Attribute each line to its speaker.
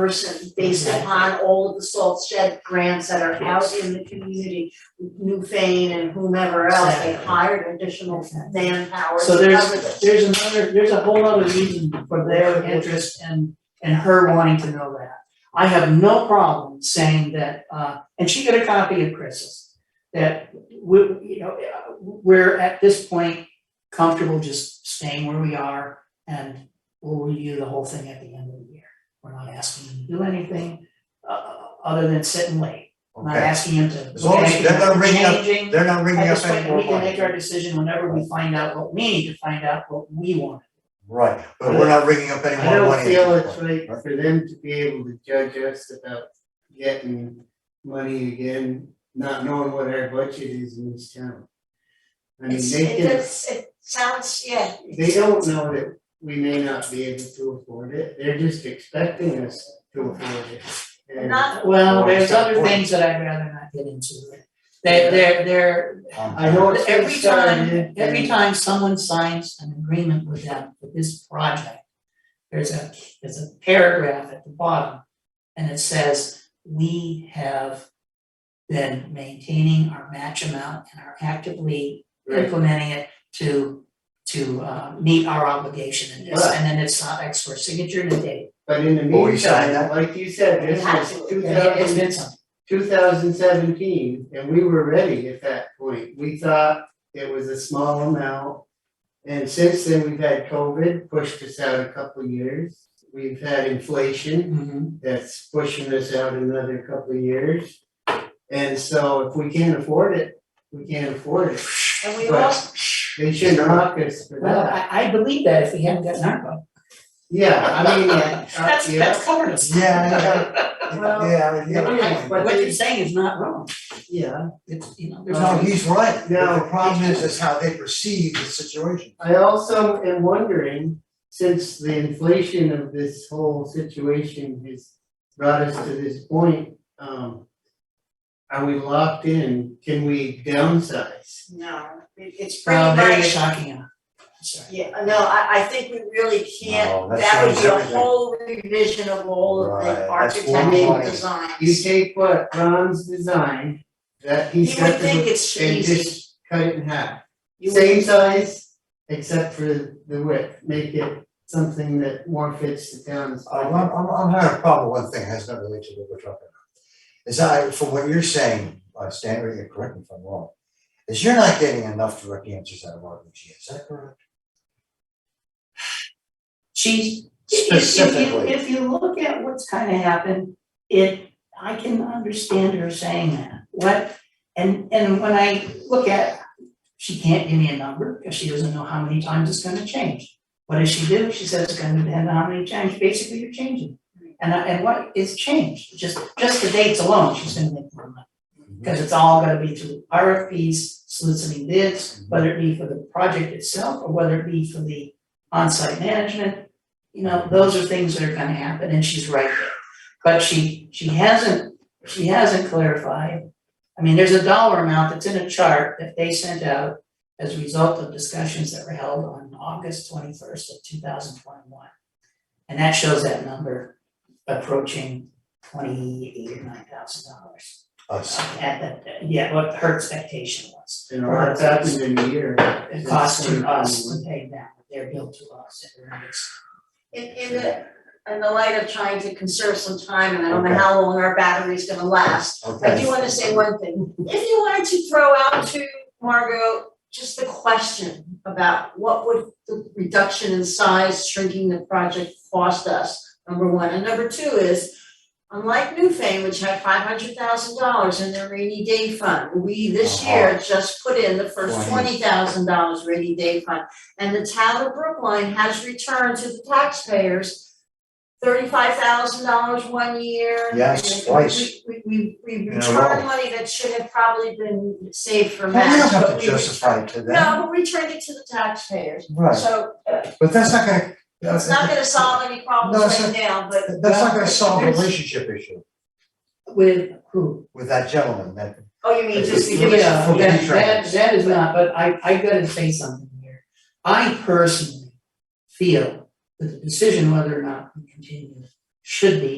Speaker 1: person based upon all of the salt shed grants that are out in the community. New Fane and whomever else, they hired additional manpower
Speaker 2: So
Speaker 1: to
Speaker 2: there's-
Speaker 1: cover this.
Speaker 2: There's another, there's a whole other reason for their interest and, and her wanting to know that. I have no problem saying that, uh, and she got a copy of Chris's, that we, you know, uh, we're at this point comfortable just staying where we are and we'll review the whole thing at the end of the year. We're not asking him to do anything, uh, other than sit and wait. We're Not
Speaker 3: Okay.
Speaker 2: asking him to
Speaker 3: As
Speaker 2: look
Speaker 3: long
Speaker 2: at
Speaker 3: as they're not
Speaker 2: anything,
Speaker 3: bringing up-
Speaker 2: changing.
Speaker 3: They're not
Speaker 2: I
Speaker 3: ringing
Speaker 2: just
Speaker 3: up
Speaker 2: think
Speaker 3: any more
Speaker 2: we can make our
Speaker 3: money.
Speaker 2: decision whenever we find out what we need to find out what we want.
Speaker 3: Right, but we're not ringing up any
Speaker 4: I
Speaker 3: more money.
Speaker 4: don't
Speaker 3: at
Speaker 4: feel
Speaker 3: this
Speaker 4: it's
Speaker 3: point.
Speaker 4: right
Speaker 3: right?
Speaker 4: for them to be able to judge us about getting money again, not knowing what our budget is in this town. I mean,
Speaker 1: It's,
Speaker 4: they
Speaker 1: it
Speaker 4: can,
Speaker 1: does, it sounds, yeah.
Speaker 4: they don't know that we may not be able to afford it, they're just expecting us to afford it. And
Speaker 1: Not,
Speaker 2: Well, there's
Speaker 3: Well,
Speaker 2: other
Speaker 3: it's
Speaker 2: things that I'd rather not get into. They, they're, they're,
Speaker 3: Um,
Speaker 4: I know it's been
Speaker 2: every time,
Speaker 4: started.
Speaker 2: every time someone signs an agreement with them for this project, there's a, there's a paragraph at the bottom, and it says, we have been maintaining our match amount and are actively
Speaker 4: Right,
Speaker 2: implementing it to to uh meet our obligation in this, and then it's not X for signature and a date.
Speaker 4: but in the
Speaker 3: Will we sign that?
Speaker 4: meantime, like you said, this is
Speaker 1: Absolutely.
Speaker 4: two
Speaker 2: And it- It's
Speaker 4: thousand
Speaker 2: been something,
Speaker 4: two thousand seventeen, and we were ready at that point, we thought it was a small amount. And since then, we've had COVID, pushed us out a couple of years, we've had inflation,
Speaker 2: Mhm.
Speaker 4: that's pushing us out another couple of years. And so if we can't afford it, we can't afford it,
Speaker 1: and we
Speaker 4: Right.
Speaker 1: also,
Speaker 4: they shouldn't mock us for
Speaker 2: Well,
Speaker 4: that,
Speaker 2: I I believe that if we hadn't gotten ARPA,
Speaker 4: yeah, I mean, uh,
Speaker 2: that's
Speaker 4: yeah,
Speaker 2: that's covered us.
Speaker 3: Yeah,
Speaker 4: Well,
Speaker 3: yeah, yeah, yeah.
Speaker 4: but-
Speaker 2: What you're saying is not wrong,
Speaker 4: yeah,
Speaker 2: it's, you know, there's
Speaker 3: No,
Speaker 2: no.
Speaker 3: he's right, but
Speaker 4: No.
Speaker 3: the problem is, is how they perceive the situation.
Speaker 4: I also am wondering, since the inflation of this whole situation has brought us to this point, um. Are we locked in? Can we downsize?
Speaker 1: no, it- it's pretty
Speaker 2: Well,
Speaker 1: much.
Speaker 2: very shocking, uh, sorry.
Speaker 1: Yeah, no, I I think we really can't,
Speaker 3: No, that
Speaker 1: that would
Speaker 3: changes
Speaker 1: be a
Speaker 3: everything.
Speaker 1: whole revision of all of the
Speaker 3: Right, that's one
Speaker 1: architectural
Speaker 4: point.
Speaker 1: designs.
Speaker 4: You take what Ron's design, that he's
Speaker 1: You would
Speaker 4: got
Speaker 1: think
Speaker 4: the,
Speaker 1: it's
Speaker 4: and
Speaker 1: easy,
Speaker 4: just cut it in half.
Speaker 1: you would,
Speaker 4: Same size, except for the width, make it something that more fits the town's.
Speaker 3: I'm, I'm, I'm- I'm having a problem, with one thing has nothing related to what we're talking about. Is I, from what you're saying, uh, Stan, or you correct me if I'm wrong, is you're not getting enough direct answers out of RBG, is that correct?
Speaker 2: She's, if if- if you,
Speaker 3: Specifically.
Speaker 2: if you look at what's kind of happened, it, I can understand her saying that, what, and, and when I look at, she can't give me a number, because she doesn't know how many times it's gonna change. What does she do? She says it's gonna depend on how many times, basically you're changing. And, I- and what is changed, just, just the dates alone, she's gonna make more money. Because it's all gonna be through RFPs, soliciting bids, whether it be for the project itself or whether it be for the on-site management. You know, those are things that are gonna happen and she's right there. But she, she hasn't, she hasn't clarified. I mean, there's a dollar amount that's in a chart that they sent out as a result of discussions that were held on August twenty-first of two thousand twenty-one. And that shows that number approaching twenty-eight or nine thousand dollars
Speaker 3: Us.
Speaker 2: at the, yeah, what her expectation was.
Speaker 4: You know, that's happened in a year.
Speaker 2: It cost to us to pay them, their bill to us, and we're not-
Speaker 1: in in the, in the light of trying to conserve some time, and I don't know
Speaker 3: Okay.
Speaker 1: how long our battery's gonna last. I
Speaker 3: Okay,
Speaker 1: do wanna say one thing, if you wanted to throw out to Margot, just the question about what would the reduction in size, shrinking the project cost us, number one, and number two is. Unlike Newfane, which had five hundred thousand dollars in their rainy day fund, we this
Speaker 3: Uh-huh.
Speaker 1: year just put in the first
Speaker 3: Twenty.
Speaker 1: twenty thousand dollars rainy day fund. And the town of Brookline has returned to the taxpayers thirty-five thousand dollars one year. and
Speaker 3: Yes,
Speaker 1: we-
Speaker 3: twice.
Speaker 1: We we we
Speaker 3: a row.
Speaker 1: returned money that should have probably been saved for
Speaker 3: Well, we
Speaker 1: match,
Speaker 3: don't have
Speaker 1: but
Speaker 3: to
Speaker 1: we.
Speaker 3: justify it to them,
Speaker 1: No, we returned it to the taxpayers,
Speaker 3: right,
Speaker 1: so uh,
Speaker 3: but that's not gonna.
Speaker 1: it's not gonna solve any
Speaker 3: No,
Speaker 1: problems
Speaker 3: it's
Speaker 1: right now, but
Speaker 3: That's not gonna solve the relationship issue
Speaker 2: With who?
Speaker 3: with that gentleman, that,
Speaker 1: Oh, you mean
Speaker 3: It's-
Speaker 1: just
Speaker 3: it's-
Speaker 1: because
Speaker 2: Yeah,
Speaker 3: for
Speaker 2: that, that,
Speaker 3: the trans.
Speaker 2: that is not, but I, I gotta say something here. I personally feel that the decision whether or not we continue should be